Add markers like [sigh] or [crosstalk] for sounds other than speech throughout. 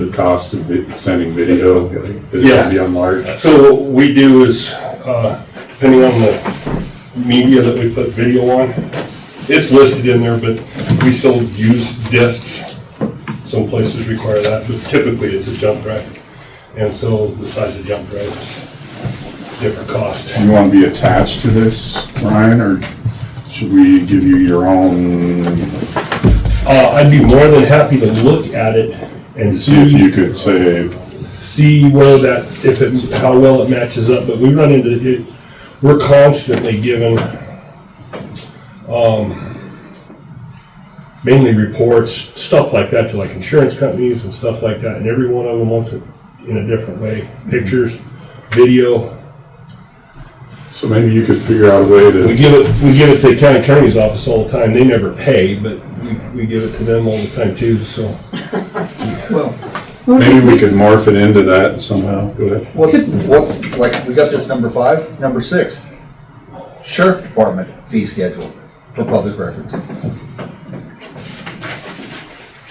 the cost of vi- sending video? Is it Yeah. gonna be on large? So what we do is, uh, depending on the media that we put video on, it's listed in there, but we still use discs. Some places require that, but typically it's a jump drive. And so the size of jump drive is different cost. Do you want to be attached to this, Ryan, or should we give you your own? Uh, I'd be more than happy to look at it and See if you see, could say, see where that, if it, how well it matches up, but we run into, it, we're constantly given, um, mainly reports, stuff like that to like insurance companies and stuff like that, and every one of them wants it in a different way, pictures, video. so maybe you could figure out a way We to, give it, we give it to the county attorney's office all the time, they never pay, but we, we give it to them all the time too, so. maybe we could morph it into that somehow. Go ahead. What, what's, like, we got this number five, number six. Sheriff Department fee schedule for public records. I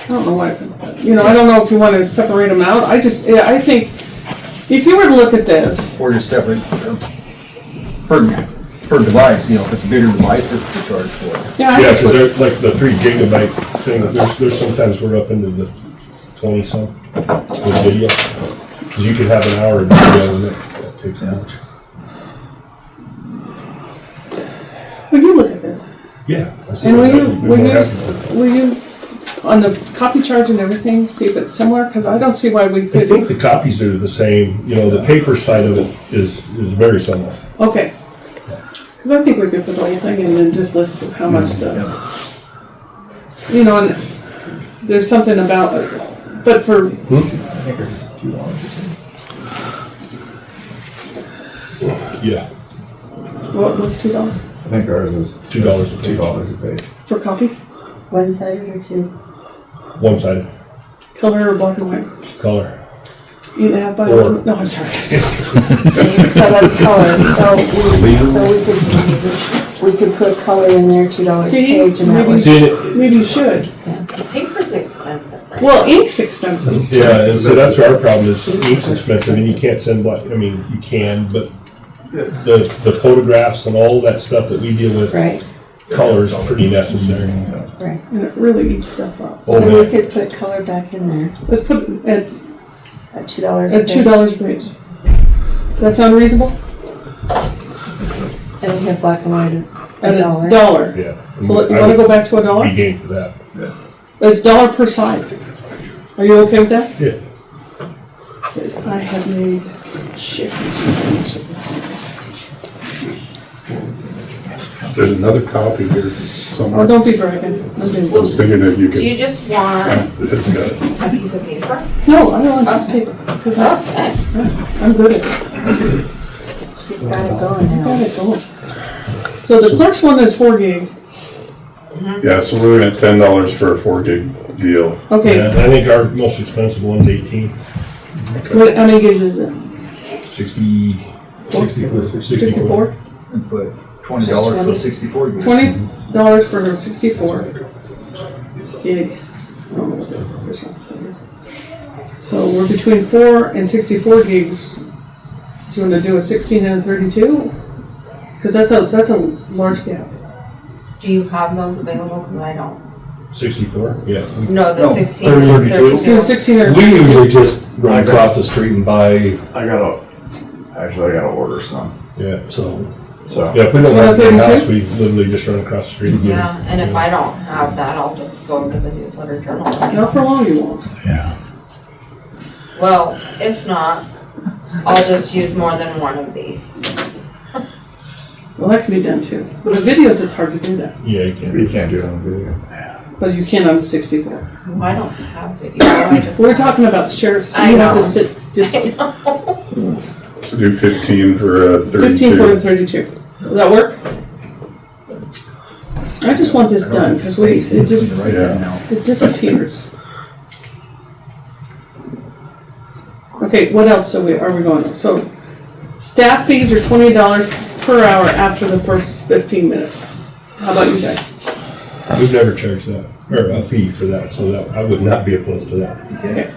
don't know what, you know, I don't know if you want to separate them out. I just, yeah, I think, if you were to look at this, Or just separate, or per, per device, you know, if it's a bigger device, this is the charge for it. yeah, I Yeah, just because would- they're like the three gigabyte thing, there's, there's sometimes we're up into the twenty some with video. 'Cause you could have an hour of video and that that takes that much. would you look at this? Yeah. I see And will that. you, We'd be will more you, happy with it. will you, on the copy charge and everything, see if it's similar? Because I don't see why we I think could, the copies are the same, you know, the paper side of it is, is very similar. okay. Because I think we could put the whole thing and then just list how much the, you know, and there's something about, but for, Yeah. what was two dollars? I think ours is. Two dollars a page. Two dollars a page. For copies? One sided or two? One sided Color or black and white? color. Either have by, Or- no, I'm sorry. [laughs] So that's color, so, we- so we could, we could put color in there, two dollars a See? page, and that Maybe- was, See, it- Maybe you should. Paper's expensive, right? Well, ink's expensive. yeah, and so that's our problem is ink's expensive and you can't send black, I mean, you can, but the, the photographs and all that stuff that we deal with. right, color is pretty necessary. right. And it really eats stuff up. Oh, So we yeah. could put color back in there, Let's put it at, at two dollars a at page. two dollars a page. That sound reasonable? And we have black and white, a dollar. Dollar. Yeah. So let- you wanna go back to a I would dollar? Be game for that. It's dollar per side. Are you okay with that? Yeah. I have made shit. There's another copy here Oh, somewhere. I don't be bragging. I'm doing was thinking if you Do you could, just want it's got it. a piece of paper? No, I don't want this paper, because I, Okay. I'm good at it. She's got it going Got now. it, go on. So the clerk's one is four gig. Yeah, so we're looking at ten dollars for a four gig deal. Yeah, Okay, I think our most expensive one's eighteen, what, how many gigs is it? sixty, sixty-four, sixty-four. Sixty-four? And put twenty dollars for sixty-four. gig. Twenty dollars for her sixty-four. gig. I don't know what the official thing is. So we're between four and sixty-four gigs. Do you wanna do a sixteen and a thirty-two? Cause that's a, that's a large gap. Do you have those available? Because I don't. Sixty-four, yeah. No, the No, 16 and 32. Do a sixteen or, We usually just run across the street and buy, I gotta, actually, I gotta order some, Yeah. so. so. Yeah, if we don't What, have the house, 32? we literally just run across the street. and get it. Yeah, and if I don't have that, I'll just go to the newsletter journal. not for long you won't. Well, if not, I'll just use more than one of these. Well, that can be done too. With the videos, it's hard to do that, Yeah, you can. You can't do it on video. but you can on the sixty-four. Well, I don't have video, I just. We're talking about the sheriff's, I you have know. to sit, just [laughs] I know. So do fifteen for a fifteen for thirty-two. the thirty-two. Does that work? I just want this done, cause we, it just, Right Yeah. now. It disappears. Okay, what else are we, are we going, so staff fees are twenty dollars per hour after the first fifteen minutes. How about you guys? We've never charged that, or a fee for that, so that, I would not be opposed to that. Okay.